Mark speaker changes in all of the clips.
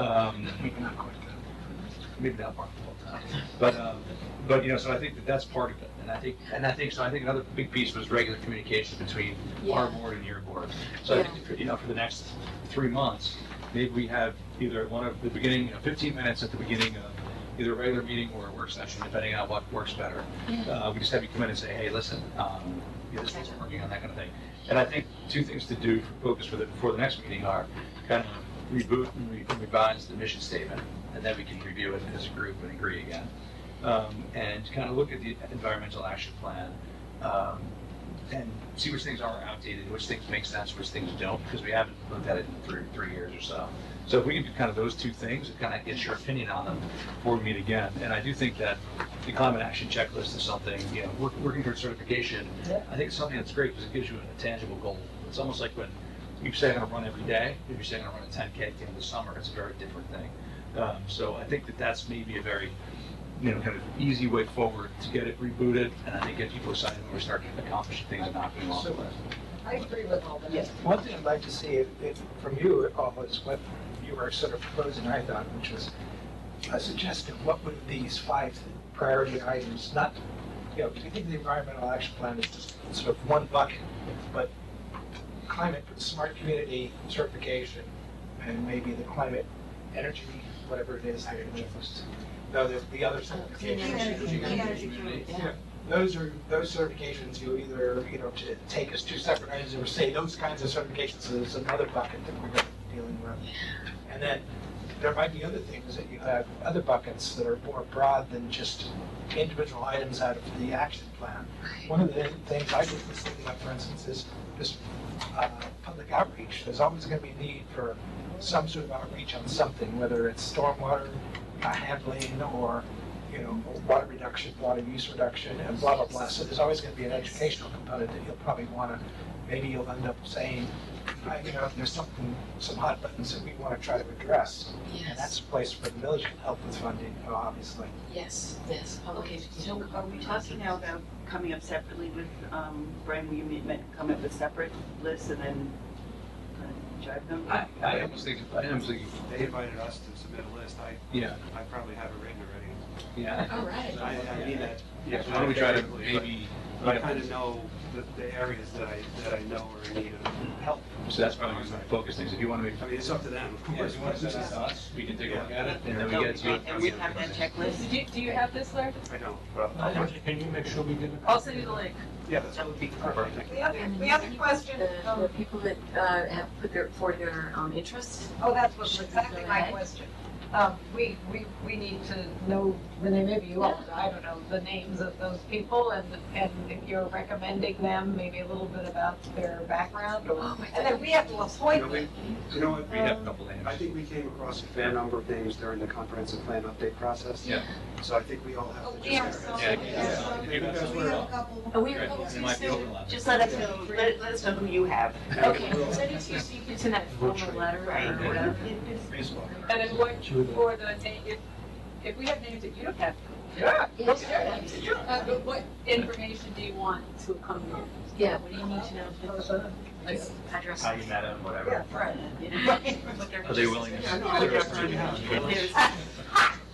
Speaker 1: Um, maybe that part the whole time. But, um, but, you know, so I think that that's part of it. And I think, and I think, so I think another big piece was regular communication between our
Speaker 2: Yeah.
Speaker 1: board and your board. So I think, for- you know, for the next three months, maybe we have either one of the beginning, you know, fifteen minutes at the beginning of either a regular meeting or a work session, depending on what works better.
Speaker 2: Yeah.
Speaker 1: Uh, we just have you come in and say, hey, listen, um, yeah, this isn't working on that kind of thing. And I think two things to do for focus for the, for the next meeting are kind of reboot and re- and revise the mission statement, and then we can review it as a group and agree again. Um, and kind of look at the environmental action plan, um, and see which things are outdated, which things make sense, which things don't, because we haven't looked at it in three, three years or so. So if we can do kind of those two things, it kind of gets your opinion on them before we meet again. And I do think that the climate action checklist is something, you know, work- working towards certification, I think it's something that's great because it gives you a tangible goal. It's almost like when you say I'm gonna run every day, if you say I'm gonna run a 10K at the end of the summer, it's a very different thing. Um, So I think that that's maybe a very, you know, kind of easy way forward to get it rebooted and I think get people excited when we start accomplishing things and not being off the list.
Speaker 3: I agree with all that.
Speaker 4: Yes, one thing I'd like to see if- if- from you all is what you were sort of proposing, I thought, which was a suggestion, what would these five priority items, not, you know, do you think the environmental action plan is just sort of one bucket, but climate, smart community certification, and maybe the climate energy, whatever it is, they're just- no, there's the other
Speaker 2: Clean energy,
Speaker 4: certification.
Speaker 2: clean energy community, yeah.
Speaker 4: Those are, those certifications, you either, you know, to take as two separate items, or say those kinds of certifications is another bucket that we're dealing with. And then, there might be other things that you have, other buckets that are more broad than just individual items out of the action plan. One of the things I just was thinking of, for instance, is just, uh, public outreach. There's always gonna be a need for some sort of outreach on something, whether it's stormwater uh, handling or, you know, water reduction, water use reduction, and blah, blah, blah. So there's always gonna be an educational component that you'll probably wanna, maybe you'll end up saying, I, you know, there's something, some hot buttons that we wanna try to address. And that's
Speaker 2: Yes,
Speaker 4: a place where the village can help with funding, you know, obviously.
Speaker 2: yes, yes.
Speaker 5: Okay, so are we talking now about coming up separately with, um, Brian, will you meet, met- come up with separate lists and then uh, drive them?
Speaker 1: I, I almost think, I almost think,
Speaker 6: They invited us to submit a list, I,
Speaker 1: yeah,
Speaker 6: I probably have it written already.
Speaker 1: yeah.
Speaker 2: All right.
Speaker 6: I, I mean that.
Speaker 1: Yeah, so why don't we try to maybe,
Speaker 6: But I kind of know the, the areas that I, that I know are in need of help.
Speaker 1: so that's probably my focus things, if you want to make.
Speaker 6: I mean, it's up to them, of
Speaker 1: Yeah,
Speaker 6: course.
Speaker 1: if you want to send this to us, we can take a look at it, and then we
Speaker 5: No,
Speaker 1: get to. you.
Speaker 5: And we have that checklist?
Speaker 7: Did you, do you have this, Larry?
Speaker 6: I know, but,
Speaker 4: Can you make sure we get
Speaker 7: I'll send you the link.
Speaker 6: yeah, that's
Speaker 5: That would be perfect.
Speaker 6: perfect.
Speaker 3: The other, the other question,
Speaker 2: The, the
Speaker 3: um,
Speaker 2: people that, uh, have put their, for their, um, interest,
Speaker 3: oh, that was exactly my question. Um, we, we, we need to know, the name maybe you all, I don't know, the names of those people and, and if you're recommending them, maybe a little bit about their background or,
Speaker 2: oh my
Speaker 3: and then
Speaker 2: God.
Speaker 3: we have to
Speaker 6: You know,
Speaker 3: appoint
Speaker 6: we,
Speaker 3: them.
Speaker 6: you know what,
Speaker 1: We have a couple names.
Speaker 6: I think we came across a fair number of things during the comprehensive plan update process.
Speaker 1: Yeah.
Speaker 6: So I think we all have
Speaker 3: Oh,
Speaker 6: to.
Speaker 3: we have
Speaker 6: just-
Speaker 3: some,
Speaker 1: Yeah,
Speaker 3: we have
Speaker 1: yeah.
Speaker 3: some.
Speaker 1: Maybe that's
Speaker 3: We
Speaker 1: where-
Speaker 3: have a couple.
Speaker 2: Oh, we
Speaker 1: Great.
Speaker 2: were supposed
Speaker 1: It
Speaker 2: to
Speaker 1: might be
Speaker 2: send.
Speaker 1: overlapping.
Speaker 5: Just let us know, let, let us know who you have.
Speaker 7: Okay,
Speaker 2: Okay, send it to you so you can send that formal letter or whatever.
Speaker 1: Facebook.
Speaker 7: And then what, for the name, if, if we have names that you don't have,
Speaker 4: Yeah.
Speaker 2: Yeah, sure.
Speaker 7: uh, but what information do you want to come in?
Speaker 2: Yeah, what do you need to know? Like address.
Speaker 1: How you met him, whatever.
Speaker 5: Right.
Speaker 1: Are they willing to-
Speaker 6: Yeah, no, they're up to you.
Speaker 5: If there's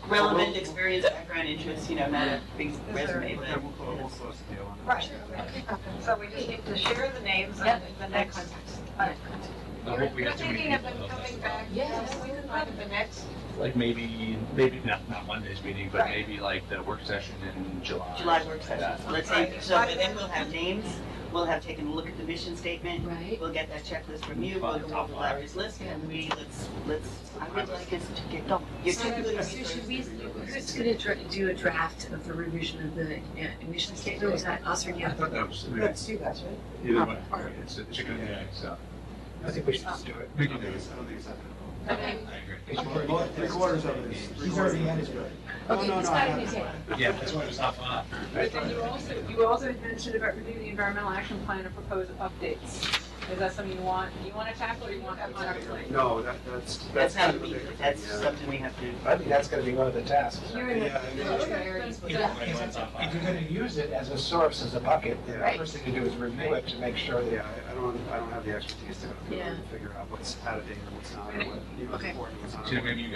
Speaker 5: relevant experience, background, interests, you know, not a big resume,
Speaker 6: Okay,
Speaker 5: but.
Speaker 6: we'll, clo- we'll close the deal on that.
Speaker 3: Right. So we just need to share the names
Speaker 2: Yep.
Speaker 3: and the next.
Speaker 2: Yeah.
Speaker 1: I hope we
Speaker 3: You're
Speaker 1: have too many
Speaker 3: thinking of them
Speaker 1: people, though.
Speaker 3: coming back,
Speaker 2: Yes.
Speaker 3: yes, we could find the next
Speaker 1: Like maybe, maybe, not, not Monday's meeting, but
Speaker 3: Right.
Speaker 1: maybe like the work session in July.
Speaker 5: July work session, so let's say, so then we'll have names, we'll have taken a look at the mission statement,
Speaker 2: Right?
Speaker 5: we'll get that checklist from you, we'll go over Larry's list, and we, let's, let's, I would like us to get going. You're
Speaker 2: So
Speaker 5: too good at
Speaker 2: so
Speaker 5: research.
Speaker 2: should we, who's gonna dra- do a draft of the revision of the uh, emission statement, is that us or you?
Speaker 1: I thought that was,
Speaker 3: That's you guys, right?
Speaker 1: either way, it's a chicken and egg, so.
Speaker 4: I think we should just do it.
Speaker 1: We
Speaker 6: I
Speaker 1: can
Speaker 6: don't
Speaker 1: do
Speaker 6: think
Speaker 1: it.
Speaker 6: it's, I don't think it's that.
Speaker 2: Okay,
Speaker 1: I agree.
Speaker 6: Well, three quarters of it is. three
Speaker 4: He's already
Speaker 6: quarters of it
Speaker 4: had
Speaker 6: is
Speaker 4: it.
Speaker 6: good. No,
Speaker 2: okay,
Speaker 6: no,
Speaker 2: it's
Speaker 6: no, I
Speaker 2: gotta be
Speaker 6: have it.
Speaker 2: taken.
Speaker 1: Yeah, that's why it was not fun.
Speaker 7: But then you also, you also had mentioned about reviewing the environmental action plan and proposed updates. Is that something you want, you want to tackle or you want on our plate?
Speaker 6: No, that, that's,
Speaker 5: That's
Speaker 6: that's kind
Speaker 5: not,
Speaker 6: of a
Speaker 5: we-
Speaker 6: bigger thing,
Speaker 5: that's
Speaker 6: yeah.
Speaker 5: something we have to.
Speaker 4: I think that's gonna be one of the tasks.
Speaker 2: You're in
Speaker 6: Yeah, I mean,
Speaker 2: the
Speaker 7: okay.
Speaker 2: areas.
Speaker 4: If if you're gonna use it as a source, as a bucket, then the
Speaker 2: Right.
Speaker 4: first thing to do is renew it to make sure that
Speaker 6: Yeah, I- I don't, I don't have the expertise to go through
Speaker 2: Yeah.
Speaker 6: and figure out what's out of date and what's not, and what, you know,
Speaker 2: Okay.
Speaker 6: important and what's not.
Speaker 1: So maybe you